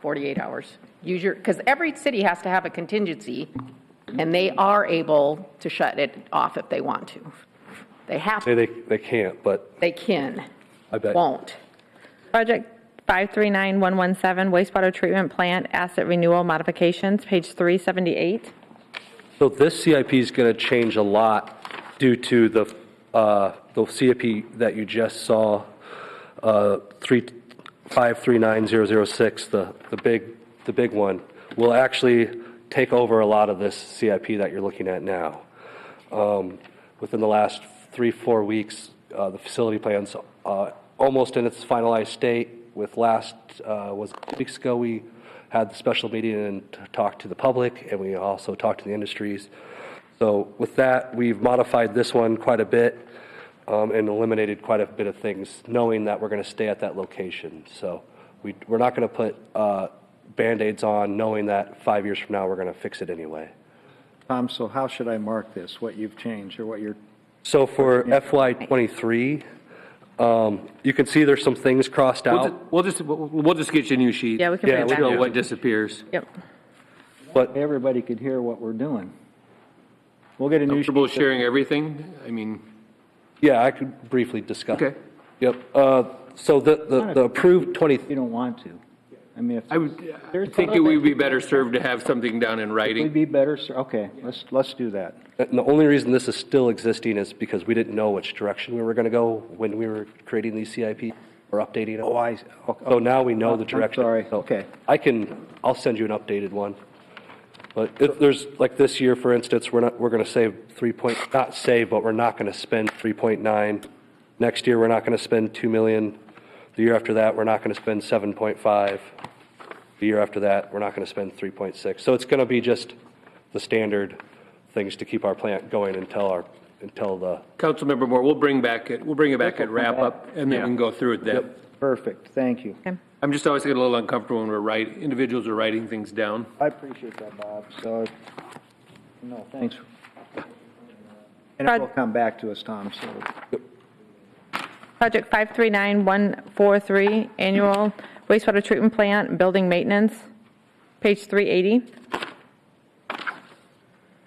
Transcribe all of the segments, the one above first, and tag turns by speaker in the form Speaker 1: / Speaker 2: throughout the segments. Speaker 1: 48 hours. Use your, because every city has to have a contingency, and they are able to shut it off if they want to. They have,
Speaker 2: Say they, they can't, but
Speaker 1: they can,
Speaker 2: I bet.
Speaker 1: won't.
Speaker 3: Project 539117, wastewater treatment plant asset renewal modifications, page 378.
Speaker 2: So this CIP is going to change a lot due to the, uh, the CIP that you just saw, uh, three, five, three, nine, zero, zero, six, the, the big, the big one, will actually take over a lot of this CIP that you're looking at now. Um, Within the last three, four weeks, uh, the facility plan's uh, almost in its finalized state. With last, uh, was two weeks ago, we had the special meeting and t- talked to the public, and we also talked to the industries. So with that, we've modified this one quite a bit um, and eliminated quite a bit of things, knowing that we're going to stay at that location. So we, we're not going to put uh, Band-Aids on, knowing that five years from now, we're going to fix it anyway.
Speaker 4: Tom, so how should I mark this, what you've changed or what you're,
Speaker 2: So for FY '23, um, you can see there's some things crossed
Speaker 5: We'll
Speaker 2: out,
Speaker 5: ju- We'll just, we'll- we'll just get you a new sheet.
Speaker 3: Oh. Yeah, we can
Speaker 2: Yeah,
Speaker 3: bring it
Speaker 2: we
Speaker 3: back.
Speaker 2: can-
Speaker 5: Show what disappears.
Speaker 3: Yep.
Speaker 2: but
Speaker 4: everybody could hear what we're doing. We'll get a new sheet.
Speaker 5: Comfortable sharing everything? I mean,
Speaker 2: yeah, I could briefly discuss.
Speaker 5: Okay.
Speaker 2: Yep. uh, So the- the the approved '20,
Speaker 4: if You don't want to. I mean, if.
Speaker 5: I would, I
Speaker 4: There's
Speaker 5: think it would be better served to have something down in
Speaker 4: We'd
Speaker 5: writing.
Speaker 4: be better, ser- okay, let's, let's do that.
Speaker 2: the only reason this is still existing is because we didn't know which direction we were going to go when we were creating these CIP or updating them.
Speaker 4: Oh, I, okay.
Speaker 2: So now we know
Speaker 4: Oh,
Speaker 2: the
Speaker 4: I'm
Speaker 2: direction.
Speaker 4: sorry.
Speaker 2: So
Speaker 4: Okay.
Speaker 2: I can, I'll send you an updated one. But if there's, like this year, for instance, we're not, we're going to save three point, not save, but we're not going to spend three point nine. Next year, we're not going to spend two million. The year after that, we're not going to spend seven point five. The year after that, we're not going to spend three point six. So it's going to be just the standard things to keep our plant going until our, until the,
Speaker 5: Councilmember Moore, we'll bring back, it. we'll bring it back at wrap-up, and then we can go through it then.
Speaker 4: Perfect, thank you.
Speaker 5: I'm just always getting a little uncomfortable when we're writing, individuals are writing things down.
Speaker 4: I appreciate that, Bob, so, no, thanks. And it will come back to us, Tom, so.
Speaker 3: Project 539143, annual wastewater treatment plant, building maintenance, page 380.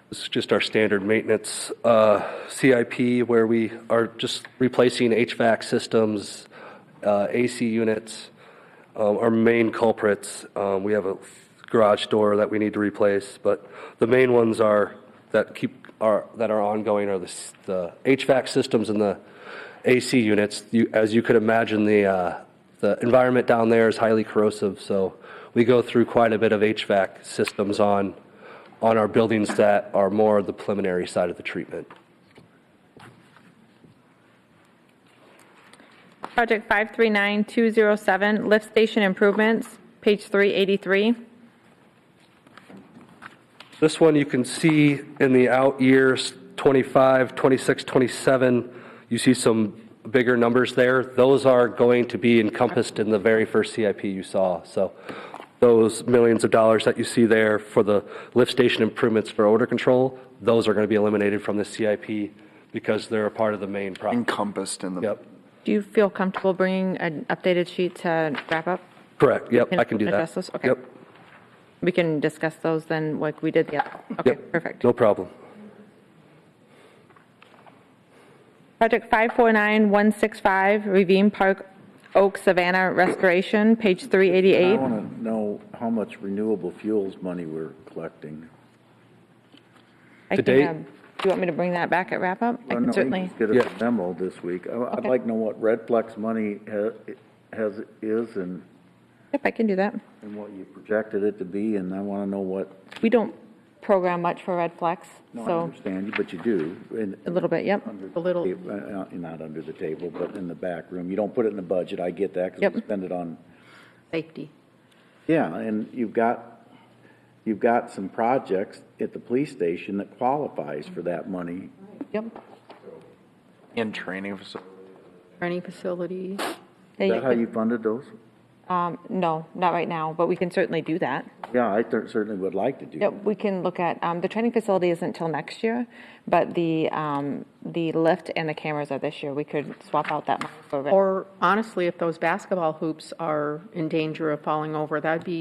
Speaker 2: This is just our standard maintenance uh, CIP where we are just replacing HVAC systems, uh, AC units, um, our main culprits. Um, We have a garage door that we need to replace, but the main ones are, that keep, are, that are ongoing are the s- the HVAC systems and the AC units. You- As you could imagine, the, uh, the environment down there is highly corrosive, so we go through quite a bit of HVAC systems on on our buildings that are more the preliminary side of the treatment.
Speaker 3: Project 539207, lift station improvements, page 383.
Speaker 2: This one you can see in the out years, 25, 26, 27, you see some bigger numbers there. Those are going to be encompassed in the very first CIP you saw. So those millions of dollars that you see there for the lift station improvements for odor control, those are going to be eliminated from the CIP because they're a part of the main project.
Speaker 6: encompassed in the.
Speaker 2: Yep,
Speaker 3: Do you feel comfortable bringing an updated sheet to wrap up?
Speaker 2: correct, yep,
Speaker 3: Can
Speaker 2: I can do that.
Speaker 3: address those? Okay.
Speaker 2: Yep,
Speaker 3: We can discuss those then, like we did the, other. okay,
Speaker 2: yep,
Speaker 3: perfect.
Speaker 2: No problem.
Speaker 3: Project 549165, Ravine Park Oak Savannah Restoration, page
Speaker 7: I
Speaker 3: 388.
Speaker 7: want to know how much renewable fuels money we're collecting.
Speaker 3: I
Speaker 2: To
Speaker 3: can,
Speaker 2: date-
Speaker 3: um, Do you want me to bring that back at wrap-up? I
Speaker 7: Well, no,
Speaker 3: can
Speaker 7: we
Speaker 3: certainly,
Speaker 7: just Get
Speaker 2: Yeah.
Speaker 7: a memo this week. I- I'd
Speaker 3: Okay.
Speaker 7: like to know what Redflex money ha- has, is and,
Speaker 3: yep, I can do that.
Speaker 7: and what you projected it to be, and I want to know what,
Speaker 3: We don't program much for Red Flex,
Speaker 7: no, I
Speaker 3: so
Speaker 7: understand you, but you do. and-
Speaker 3: a little bit, yep.
Speaker 7: under
Speaker 1: A little.
Speaker 7: the table, uh, uh, Not under the table, but in the back room. You don't put it in the budget, I get that, because we
Speaker 3: Yep.
Speaker 7: spend it on
Speaker 1: Safety.
Speaker 7: Yeah, and you've got, you've got some projects at the police station that qualifies for that money.
Speaker 3: Yep.
Speaker 6: In training facility.
Speaker 1: Training facilities.
Speaker 3: There
Speaker 7: Is
Speaker 3: you
Speaker 7: that how
Speaker 3: go.
Speaker 7: you funded those?
Speaker 3: Um, No, not right now, but we can certainly do that.
Speaker 7: Yeah, I cer- certainly would like to do.
Speaker 3: Yep, we can look at, um, the training facility isn't till next year, but the, um, the lift and the cameras are this year. We could swap out that money for. Red-
Speaker 1: Or honestly, if those basketball hoops are in danger of falling over, that'd be